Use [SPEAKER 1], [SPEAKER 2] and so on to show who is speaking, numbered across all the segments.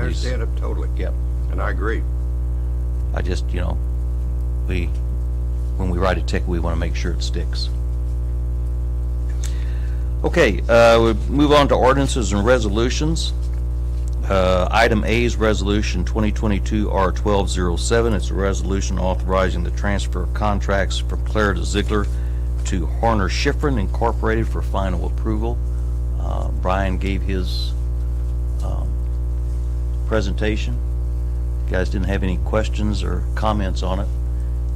[SPEAKER 1] there's,
[SPEAKER 2] understand it totally.
[SPEAKER 1] yep.
[SPEAKER 2] And I agree.
[SPEAKER 1] I just, you know, we, when we write a ticket, we want to make sure it sticks. Okay, uh, we move on to ordinances and resolutions. Uh, Item A is Resolution 2022-R1207. It's a resolution authorizing the transfer of contracts from Clara to Ziegler to Horner Schifrin Incorporated for final approval. Uh, Brian gave his um, presentation. You guys didn't have any questions or comments on it.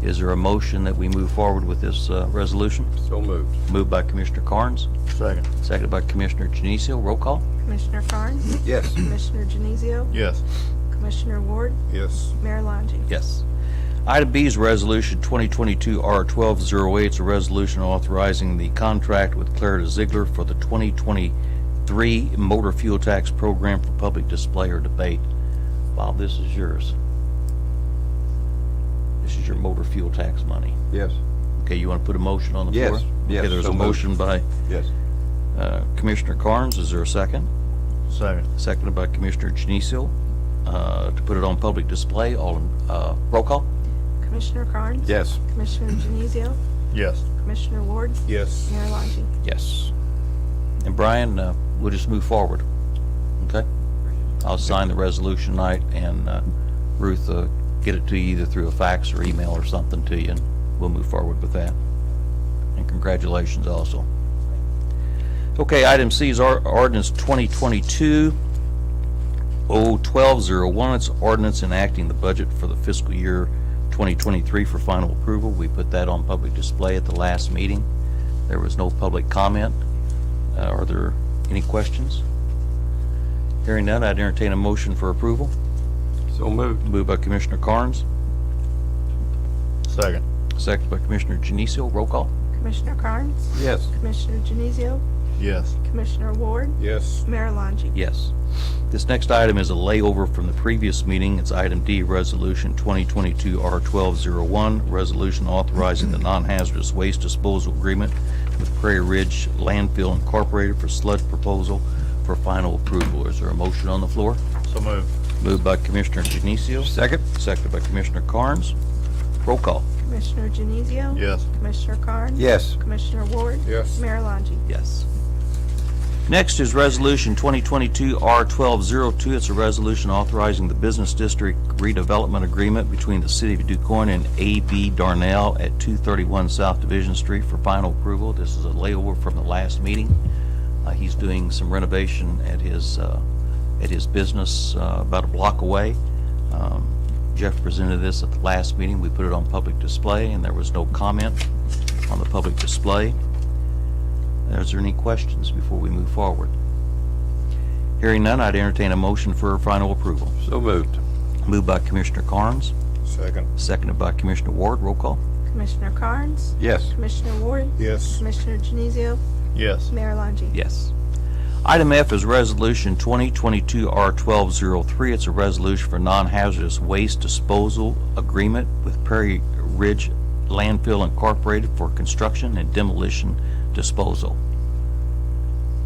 [SPEAKER 1] Is there a motion that we move forward with this uh, resolution?
[SPEAKER 2] So moved.
[SPEAKER 1] Moved by Commissioner Carnes,
[SPEAKER 3] Second.
[SPEAKER 1] seconded by Commissioner Genizio. Roll call?
[SPEAKER 4] Commissioner Carnes?
[SPEAKER 2] Yes.
[SPEAKER 4] Commissioner Genizio?
[SPEAKER 3] Yes.
[SPEAKER 4] Commissioner Ward?
[SPEAKER 2] Yes.
[SPEAKER 4] Mayor Longe?
[SPEAKER 1] Yes. Item B is Resolution 2022-R1208. It's a resolution authorizing the contract with Clarida Ziegler for the 2023 motor fuel tax program for public display or debate. Bob, this is yours. This is your motor fuel tax money.
[SPEAKER 2] Yes.
[SPEAKER 1] Okay, you want to put a motion on the
[SPEAKER 2] Yes,
[SPEAKER 1] floor?
[SPEAKER 2] yes,
[SPEAKER 1] Okay, there's
[SPEAKER 2] so
[SPEAKER 1] a
[SPEAKER 2] moved.
[SPEAKER 1] motion by
[SPEAKER 2] Yes.
[SPEAKER 1] uh, Commissioner Carnes. Is there a second?
[SPEAKER 3] Second.
[SPEAKER 1] Seconded by Commissioner Genizio uh, to put it on public display. All, in- uh, roll call?
[SPEAKER 4] Commissioner Carnes?
[SPEAKER 2] Yes.
[SPEAKER 4] Commissioner Genizio?
[SPEAKER 3] Yes.
[SPEAKER 4] Commissioner Ward?
[SPEAKER 2] Yes.
[SPEAKER 4] Mayor Longe?
[SPEAKER 1] Yes. And Brian, uh, we'll just move forward, okay? I'll sign the resolution tonight, and uh, Ruth, uh, get it to you either through a fax or email or something to you, and we'll move forward with that. And congratulations also. Okay, item C is our ordinance 2022 01201. It's ordinance enacting the budget for the fiscal year 2023 for final approval. We put that on public display at the last meeting. There was no public comment. Uh, Are there any questions? Hearing none, I'd entertain a motion for approval.
[SPEAKER 2] So moved.
[SPEAKER 1] Moved by Commissioner Carnes,
[SPEAKER 3] Second.
[SPEAKER 1] second by Commissioner Genizio. Roll call.
[SPEAKER 4] Commissioner Carnes?
[SPEAKER 2] Yes.
[SPEAKER 4] Commissioner Genizio?
[SPEAKER 3] Yes.
[SPEAKER 4] Commissioner Ward?
[SPEAKER 2] Yes.
[SPEAKER 4] Mayor Longe?
[SPEAKER 1] Yes. This next item is a layover from the previous meeting. It's item D, Resolution 2022-R1201, resolution authorizing the non-hazardous waste disposal agreement with Prairie Ridge Landfill Incorporated for sludge proposal for final approval. Is there a motion on the floor?
[SPEAKER 3] So moved.
[SPEAKER 1] Moved by Commissioner Genizio.
[SPEAKER 2] Second?
[SPEAKER 1] Seconded by Commissioner Carnes. Roll call.
[SPEAKER 4] Commissioner Genizio?
[SPEAKER 3] Yes.
[SPEAKER 4] Commissioner Carnes?
[SPEAKER 2] Yes.
[SPEAKER 4] Commissioner Ward?
[SPEAKER 2] Yes.
[SPEAKER 4] Mayor Longe?
[SPEAKER 1] Yes. Next is Resolution 2022-R1202. It's a resolution authorizing the business district redevelopment agreement between the City of DuQuoin and A.B. Darnell at 231 South Division Street for final approval. This is a layover from the last meeting. Uh, He's doing some renovation at his, uh, at his business uh, about a block away. Um, Jeff presented this at the last meeting. We put it on public display, and there was no comment on the public display. Is there any questions before we move forward? Hearing none, I'd entertain a motion for final approval.
[SPEAKER 2] So moved.
[SPEAKER 1] Moved by Commissioner Carnes,
[SPEAKER 2] Second?
[SPEAKER 1] seconded by Commissioner Ward. Roll call.
[SPEAKER 4] Commissioner Carnes?
[SPEAKER 2] Yes.
[SPEAKER 4] Commissioner Ward?
[SPEAKER 2] Yes.
[SPEAKER 4] Commissioner Genizio?
[SPEAKER 3] Yes.
[SPEAKER 4] Mayor Longe?
[SPEAKER 1] Yes. Item F is Resolution 2022-R1203. It's a resolution for non-hazardous waste disposal agreement with Prairie Ridge Landfill Incorporated for construction and demolition disposal.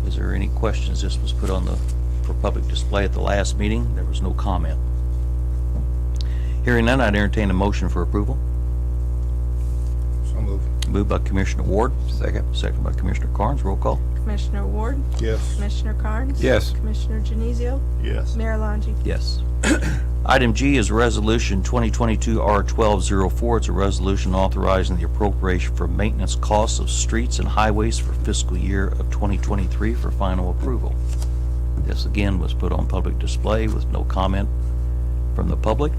[SPEAKER 1] Is there any questions? This was put on the, for public display at the last meeting. There was no comment. Hearing none, I'd entertain a motion for approval.
[SPEAKER 2] So moved.
[SPEAKER 1] Moved by Commissioner Ward,
[SPEAKER 2] Second?
[SPEAKER 1] second by Commissioner Carnes. Roll call.
[SPEAKER 4] Commissioner Ward?
[SPEAKER 2] Yes.
[SPEAKER 4] Commissioner Carnes?
[SPEAKER 2] Yes.
[SPEAKER 4] Commissioner Genizio?
[SPEAKER 3] Yes.
[SPEAKER 4] Mayor Longe?
[SPEAKER 1] Yes. Item G is Resolution 2022-R1204. It's a resolution authorizing the appropriation for maintenance costs of streets and highways for fiscal year of 2023 for final approval. This again was put on public display with no comment from the public.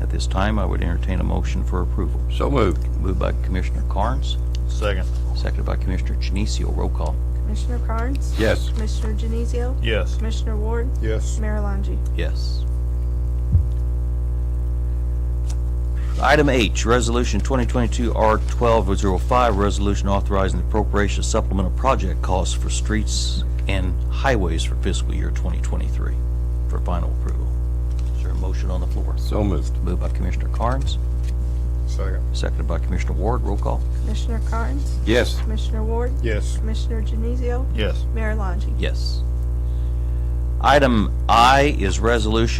[SPEAKER 1] At this time, I would entertain a motion for approval.
[SPEAKER 2] So moved.
[SPEAKER 1] Moved by Commissioner Carnes,
[SPEAKER 3] Second.
[SPEAKER 1] seconded by Commissioner Genizio. Roll call.
[SPEAKER 4] Commissioner Carnes?
[SPEAKER 2] Yes.
[SPEAKER 4] Commissioner Genizio?
[SPEAKER 3] Yes.
[SPEAKER 4] Commissioner Ward?
[SPEAKER 2] Yes.
[SPEAKER 4] Mayor Longe?
[SPEAKER 1] Yes. Item H, Resolution 2022-R1205, resolution authorizing the appropriation of supplemental project costs for streets and highways for fiscal year 2023 for final approval. Is there a motion on the floor?
[SPEAKER 2] So moved.
[SPEAKER 1] Moved by Commissioner Carnes,
[SPEAKER 2] Second?
[SPEAKER 1] seconded by Commissioner Ward. Roll call.
[SPEAKER 4] Commissioner Carnes?
[SPEAKER 2] Yes.
[SPEAKER 4] Commissioner Ward?
[SPEAKER 2] Yes.
[SPEAKER 4] Commissioner Genizio?
[SPEAKER 3] Yes.
[SPEAKER 4] Mayor Longe?
[SPEAKER 1] Yes. Item I is Resolution